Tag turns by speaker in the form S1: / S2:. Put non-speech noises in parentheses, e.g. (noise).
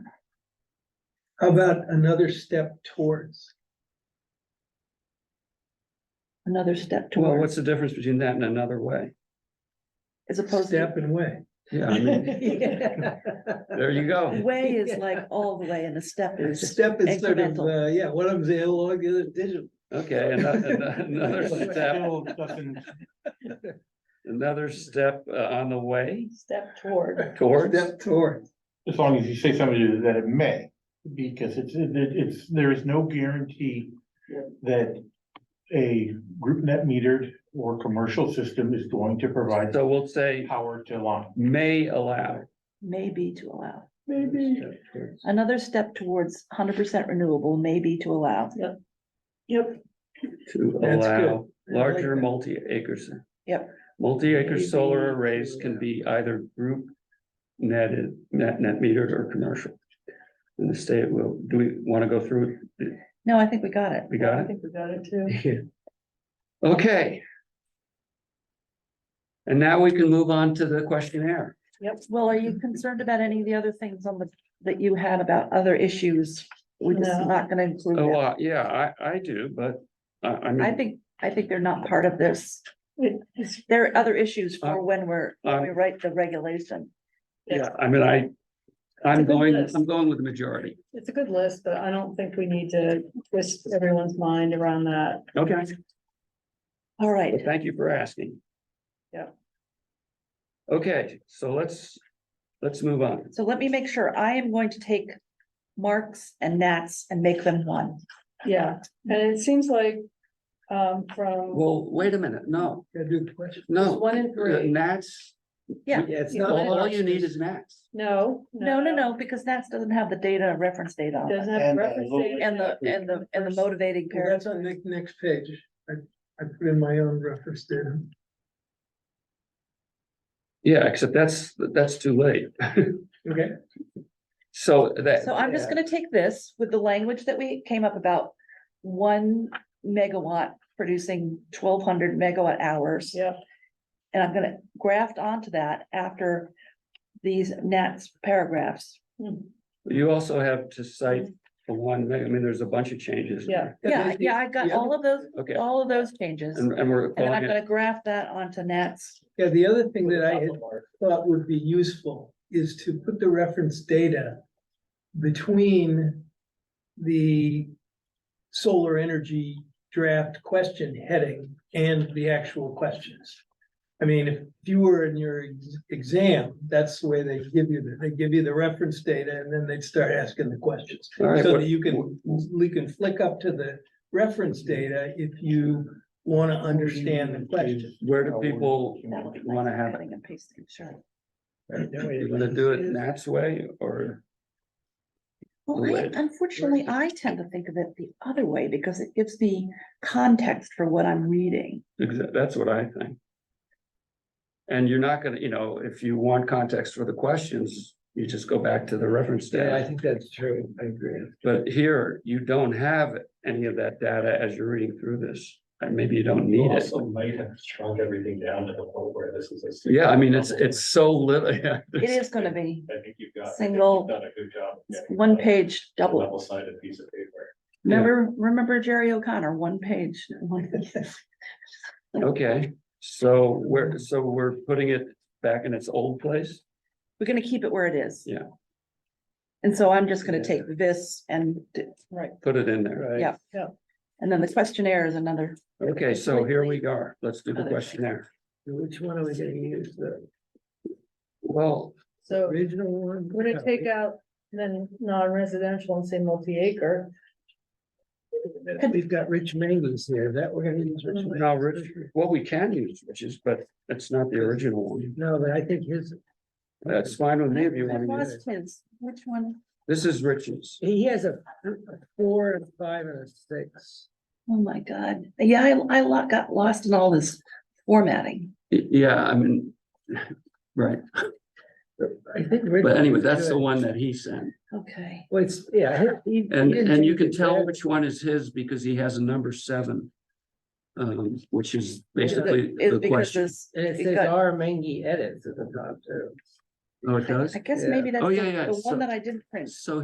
S1: How about another step towards?
S2: another step
S3: Well,
S2: toward,
S3: what's the difference between that and another way?
S2: as opposed to.
S1: Step and
S2: (laughs)
S1: way. (laughs)
S3: Yeah, (laughs) I mean, there you go.
S2: Way
S3: (laughs)
S2: is like all the way and a step is,
S1: Step is sort of,
S2: Incremental.
S1: uh, yeah, one of them's analog, the other's digital.
S3: Okay, ano- ano- uh,
S1: (laughs)
S3: another step, another step uh, on the way
S2: step toward,
S3: towards.
S1: Step towards.
S4: As long as you say something that it may, because it's, it- it's, there is no guarantee
S2: Yeah.
S4: that a group net metered or commercial system is going to provide
S3: So we'll say
S4: power to line.
S3: may allow.
S2: may be to allow.
S4: Maybe.
S2: Another step towards hundred percent renewable may be to allow. Yep. Yep.
S3: To
S1: That's good. I
S3: allow
S1: like
S3: larger
S1: that.
S3: multi-acres.
S2: Yep.
S3: Multi-acre solar
S1: Maybe.
S3: arrays can be either group netted, net, net metered or commercial. And the state will, do we want to go through? it?
S2: No, I think we got it.
S3: We got it?
S2: think we got it too.
S3: Okay. And now we can move on to the questionnaire.
S2: Yep. Well, are you concerned about any of the other things on the, that you had about other issues? We're just
S5: No.
S2: not gonna include
S3: Oh,
S2: them.
S3: uh, yeah, I, I do, but uh, I, I
S2: I
S3: mean,
S2: think, I think they're not part of this. There are other issues
S3: Uh,
S2: for when we're, when we
S3: Um,
S2: write the regulation.
S3: yeah, I mean, I, I'm
S5: It's a good
S3: going,
S5: list.
S3: I'm going with the majority.
S5: It's a good list, but I don't think we need to twist everyone's mind around that.
S3: Okay, uh,
S2: All right.
S3: but thank you for asking.
S5: Yeah.
S3: Okay, so let's, let's move on.
S2: So let me make sure, I am going to take marks and gnats and make them one.
S5: Yeah, and it seems like, um, from
S3: Well, wait a minute, no,
S1: (laughs) Gotta do the question.
S3: no.
S5: one in
S3: Uh,
S5: three,
S3: Nats,
S2: Yeah.
S1: Yeah, it's not.
S3: all all you need is Nats.
S5: no.
S2: No, no, no, because gnats doesn't have the data reference data on it.
S5: Doesn't have
S4: And the
S5: reference
S4: little-
S5: data.
S2: And the, and the, and the motivating
S1: Well,
S2: paragraph.
S1: That's on the next page. I, I put in my own reference there.
S3: Yeah, except that's, that's too late.
S1: Okay.
S3: So that.
S2: So I'm just gonna take this with the language that we came up about. One megawatt producing twelve hundred megawatt hours.
S5: Yeah,
S2: And I'm gonna graft onto that after these gnats paragraphs.
S5: Hmm,
S3: You also have to cite the one, I mean, there's a bunch of changes.
S5: Yeah.
S2: Yeah, yeah, I got
S1: Yeah.
S2: all of those,
S3: Okay,
S2: all of those changes.
S3: and,
S2: And
S3: and we're
S2: then I'm
S3: calling it,
S2: gonna graph that onto gnats.
S1: Yeah, the other thing that I had thought would be useful is to put the reference data between the solar energy draft question heading and the actual questions. I mean, if you were in your ex- exam, that's the way they give you, the- they give you the reference data and then they'd start asking the questions.
S3: All right,
S1: So
S3: what-
S1: that you can, you can flick up to the reference data if you want to understand the question.
S3: where do people
S2: That would be
S3: wanna
S2: nice,
S3: have it?
S2: Cutting and pasting, sure.
S3: You gonna do it Nat's way or?
S2: Well, I-
S3: Right.
S2: unfortunately, I tend to think of it the other way because it gives the context for what I'm reading.
S3: Exa- That's what I think. And you're not gonna, you know, if you want context for the questions, you just go back to the reference data.
S1: think that's true. I agree.
S3: But here, you don't have any of that data as you're reading through this, and maybe you don't need it.
S6: might have shrunk everything down to the point where this is a.
S3: Yeah, I mean, it's, it's so little, (laughs) yeah.
S2: It is gonna be
S6: I think you've got. I think
S2: Single-
S6: you've Done a good job. of getting
S2: one
S6: a
S2: page double.
S6: Level-sided piece of paper.
S3: Yeah.
S2: Remember, remember Jerry O'Connor, one page. (laughs) one-
S3: Okay, so we're, so we're putting it back in its old place?
S2: We're gonna keep it where it is.
S3: Yeah.
S2: And so I'm just gonna
S3: Yeah.
S2: take this and, d-
S3: Put it in there.
S2: Yeah. and then the questionnaire is another.
S3: Okay, so here we are. Let's do the questionnaire.
S1: Which one are we gonna use? The
S3: Well,
S5: so
S1: original one?
S5: would it take out then non-residential and say multi-acre?
S1: We've got Rich Mangus here, that we're gonna use. Rich
S3: No, Rich-
S1: Mangus.
S3: what we can use, which is, but it's not the original one. Uh,
S1: No, but I think his,
S3: That's fine with me if you
S2: I
S3: want to use it.
S2: lost his. Which one?
S3: This is Rich's.
S1: he has a a four and five and a six.
S2: Oh my God. Yeah, I, I lo- got lost in all this formatting.
S3: Y- Yeah, I mean, right,
S1: I think.
S3: but anyway, that's the one that he sent.
S2: Okay.
S1: Well, it's, yeah. he- he-
S3: And,
S1: he didn't
S3: and you
S1: change
S3: can
S1: it
S3: tell
S1: there.
S3: which one is his because he has a number seven. Um, which is basically
S2: Is
S3: the
S2: because
S3: question.
S2: this.
S1: And it
S2: it
S1: says
S2: got-
S1: R Mangy edits at the top too.
S3: Oh, it does?
S2: I guess
S1: Yeah.
S2: maybe that's
S3: Oh,
S2: the
S3: yeah, yeah,
S2: the
S3: so-
S2: one that I didn't print.
S3: So